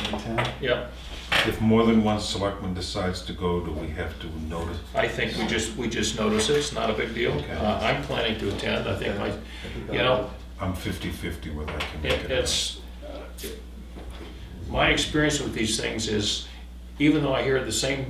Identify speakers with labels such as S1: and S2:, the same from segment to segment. S1: in town?
S2: Yeah,
S3: If more than one selectman decides to go, do we have to notice?
S2: I think we just, we just notice it, it's not a big deal.
S3: Okay.
S2: Uh, I'm planning to attend, I think my, you know,
S3: I'm 50/50 whether I can make
S2: it-
S3: it. or
S2: it's, uh, my experience with these things is, even though I hear the same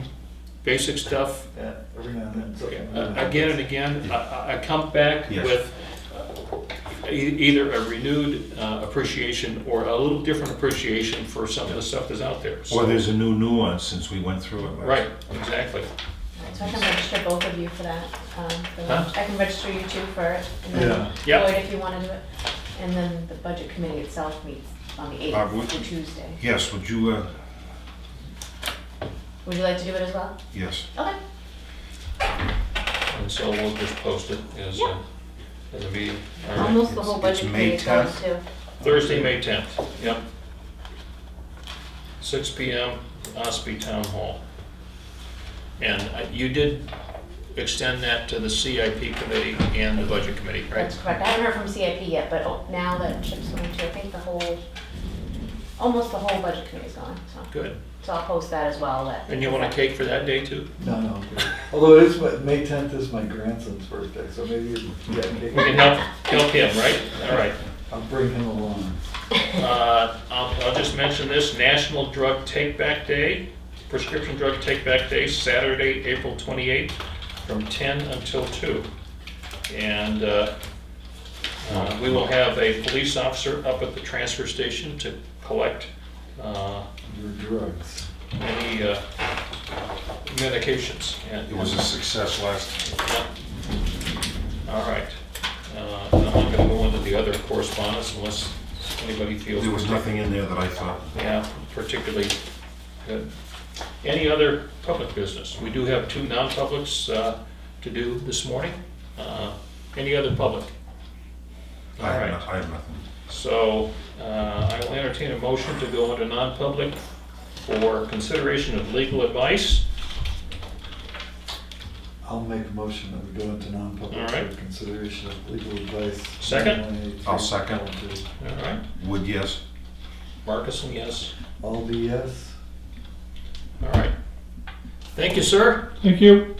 S2: basic stuff
S1: Yeah, every now and
S2: uh,
S1: then.
S2: again and again, I- I, I come back
S3: Yes.
S2: with uh, e- either a renewed uh, appreciation or a little different appreciation for some of the stuff that's out there.
S3: not. Or there's a new nuance since we went through it last.
S2: Right, exactly.
S4: So I can register both of you for that. um, for
S2: Huh?
S4: the- I can register you two for it, and
S1: Yeah.
S4: then
S2: Yeah.
S4: Lloyd if you want to do it. And then the budget committee itself meets on the
S3: Uh, would-
S4: 8th, on Tuesday.
S3: Yes, would you, uh,
S4: Would you like to do it as well?
S3: yes.
S4: Okay,
S2: And so we'll just post it as, a-
S4: Yeah.
S2: as a meeting. All right.
S4: almost the
S3: it's-
S4: whole
S3: it's
S4: budget
S3: May
S4: committee goes
S3: 10th.
S4: too.
S2: Thursday, May 10th, yep. 6 PM, Ospey Town Hall. And I- you did extend that to the CIP committee and the budget committee, right?
S4: That's correct. I haven't heard from CIP yet, but oh, now that Chip's going to, I think the whole, almost the whole budget committee's gone, so.
S2: Good.
S4: So I'll post that as well, that.
S2: And you want a cake for that day too?
S1: No, no, I'm good. although it is, my- May tenth is my grandson's birthday, so maybe, yeah,
S2: We can
S1: okay.
S2: help, help him, right? All right.
S1: I'll bring him along.
S2: Uh, I'll, I'll just mention this, National Drug Take Back Day, Prescription Drug Take Back Day, Saturday, April 28th, from 10 until 2. And uh, uh, we will have a police officer up at the transfer station to collect uh,
S1: Your drugs.
S2: any uh, medications. And-
S3: It was a success last,
S2: All right. Uh, I'm not going to go into the other correspondence unless anybody feels...
S3: there was nothing in there that I thought,
S2: Yeah, particularly good. Any other public business? We do have two non-publics uh, to do this morning. Uh, Any other public? All
S3: I have no-
S2: right,
S3: I have nothing.
S2: so uh, I will entertain a motion to go into non-public for consideration of legal advice.
S1: I'll make a motion that we go into non-public
S2: All right.
S1: for consideration of legal advice.
S2: Second?
S1: 118,
S3: I'll second.
S2: All right,
S3: Would yes?
S2: Marcus, yes.
S1: All the yes.
S2: All right. Thank you, sir.
S5: Thank you.